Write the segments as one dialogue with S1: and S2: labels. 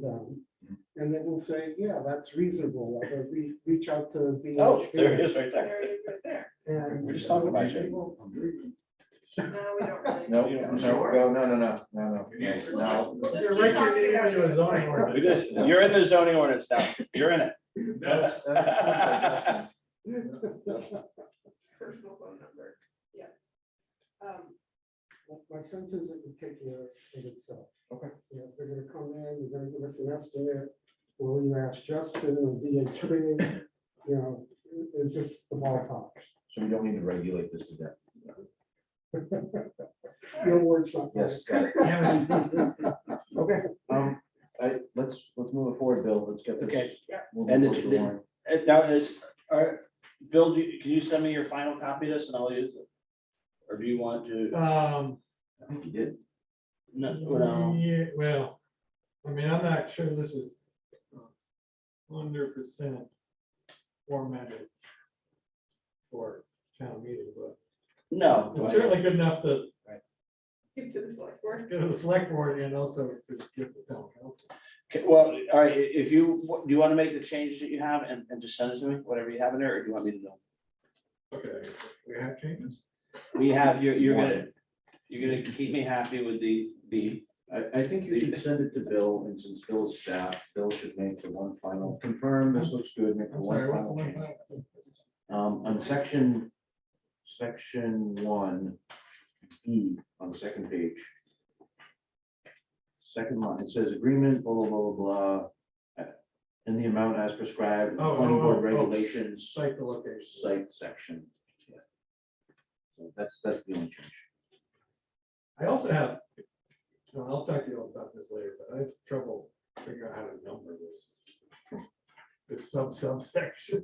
S1: them.
S2: Mm-hmm.
S1: And then we'll say, yeah, that's reasonable, like, or we reach out to the.
S2: Oh, there it is right there.
S3: There it is right there.
S1: And.
S2: We're just talking about you.
S1: People-
S3: No, we don't really.
S4: No,
S2: You
S4: no,
S2: don't-
S4: no, no, no, no, no,
S5: Yes.
S4: no.
S3: We'll just
S5: You're
S3: keep
S5: right,
S3: talking
S5: you're
S3: about
S5: into
S3: it.
S5: a zoning ordinance.
S2: We just- You're in the zoning ordinance now. You're in it.
S5: That's-
S4: That's-
S3: Personal phone number, yes. Um,
S1: My sense is it would take care of itself.
S4: Okay.
S1: You know, they're gonna come in, they're gonna give us an estimate, will you ask Justin, will be a tree, you know, it's just the ballpark.
S4: So we don't need to regulate this to death.
S1: Your words, not mine.
S4: Yes, got it. Okay, um, I, let's, let's move it forward, Bill, let's get this.
S2: Okay.
S3: Yeah.
S4: we'll
S2: And
S4: move
S2: it's-
S4: forward to warrant.
S2: And now is, are, Bill, do you- can you send me your final copy of this and I'll use it? Or do you want to?
S5: Um,
S4: I think you did.
S2: No, no.
S5: Yeah, well, I mean, I'm not sure this is hundred percent formatted for town meeting, but
S2: No.
S5: it's certainly good enough to
S3: give to the select board.
S5: go to the select board and also to give the town council.
S2: Okay, Well, all right, i- if you, do you want to make the changes that you have and, and just send it to me, whatever you have in there, or do you want me to know?
S5: Okay, we have changes.
S2: We have, you're, you're gonna, you're gonna keep me happy with the, the,
S4: I, I think you should send it to Bill, and since Bill is staff, Bill should make the one final, confirm this looks good, make the
S5: I'm
S4: one
S5: sorry, what's the
S4: final
S5: one?
S4: change. Um, on section, section one, E, on the second page. Second line, it says agreement, blah, blah, blah, blah, blah, in the amount as prescribed, in
S5: Oh,
S4: planning
S5: oh,
S4: board
S5: oh, oh.
S4: regulations,
S5: Site the location.
S4: site section. So that's, that's the only change.
S5: I also have, no, I'll talk to you all about this later, but I have trouble figuring out how to number this. It's sub subsection,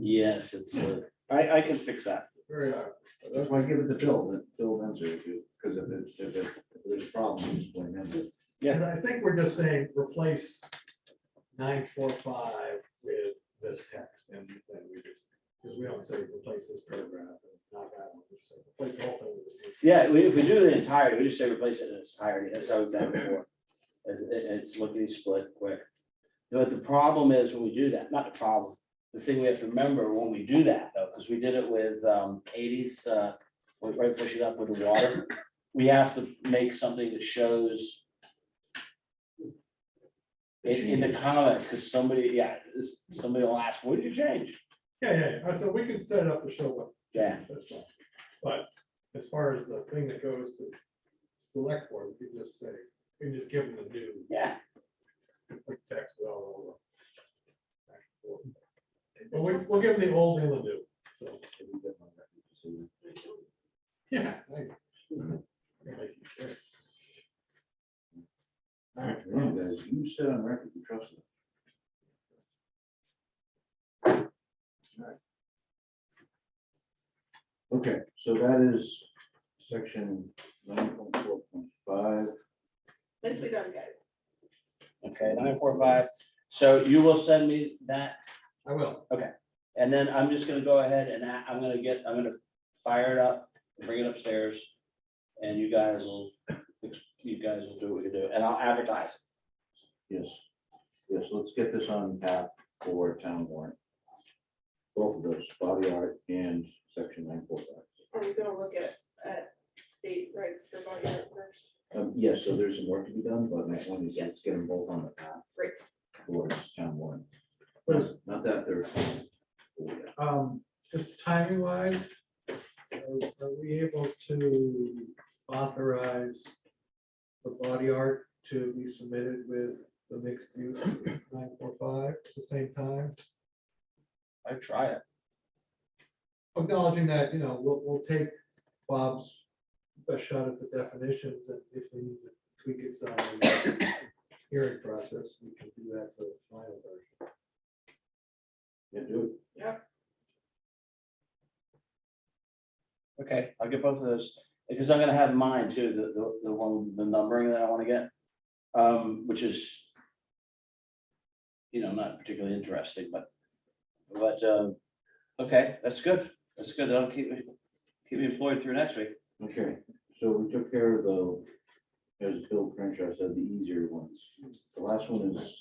S2: yes, it's, uh, I, I can fix that.
S5: very hard.
S4: That's why I give it to Bill, that Bill answer if you, because if it, if it, if there's a problem, just blame him.
S2: Yeah.
S5: And I think we're just saying, replace nine, four, five with this text and then we just, because we don't say replace this paragraph and not that one, we say replace the whole thing. with this.
S2: Yeah, we, if we do the entirety, we just say replace it in its entirety, that's how we've done it before. It- it- it's looking to split quick. But the problem is when we do that, not the problem, the thing we have to remember when we do that though, because we did it with um Katie's uh. Right right before she left with the water, we have to make something that shows. In in the comments, because somebody, yeah, this, somebody will ask, what did you change?
S5: Yeah, yeah, yeah. so we can set it up to show what
S2: Yeah,
S5: That's fine. But as far as the thing that goes to select board, we can just say, we can just give them the new
S2: yeah,
S5: text with all over. But we, we'll give them the old and the new, so. Yeah. I-
S4: All right, guys, you said on record, you trust him. Okay, so that is section nine point four point five.
S3: Nicely done, guys.
S2: okay, nine four five, so you will send me that
S5: I will.
S2: And then I'm just gonna go ahead and I, am gonna get, I'm gonna fire it up, bring it upstairs. And you guys will, you guys will do what you do, and I'll advertise.
S4: Yes, yes, let's get this on path for town warrant. Both of those, body art and section nine four five.
S3: Are we gonna look at, at state rights for body art first?
S4: Um, yes, so there's some work to be done, but my point is, let's get them both on the path.
S3: Great.
S4: For town warrant.
S5: What is-
S4: Not that they're. Yeah.
S5: Um, just timing wise, are we able to authorize the body art to be submitted with the mixed use nine four five at the same time?
S2: I try it.
S5: Acknowledging that, you know, we'll, we'll take Bob's best shot at the definitions and if we need to tweak it some in the hearing process, we can do that for the final version.
S4: Yeah, do it.
S2: Okay, I'll get both of those, because I'm gonna have mine too, the, the, the one, the numbering that I wanna get. Um, which is. You know, not particularly interesting, but, but, um, okay, that's good, that's good, that'll keep me, keep me employed through next week.
S4: Okay, so we took care of the, as Bill Crenshaw said, the easier ones. The last one is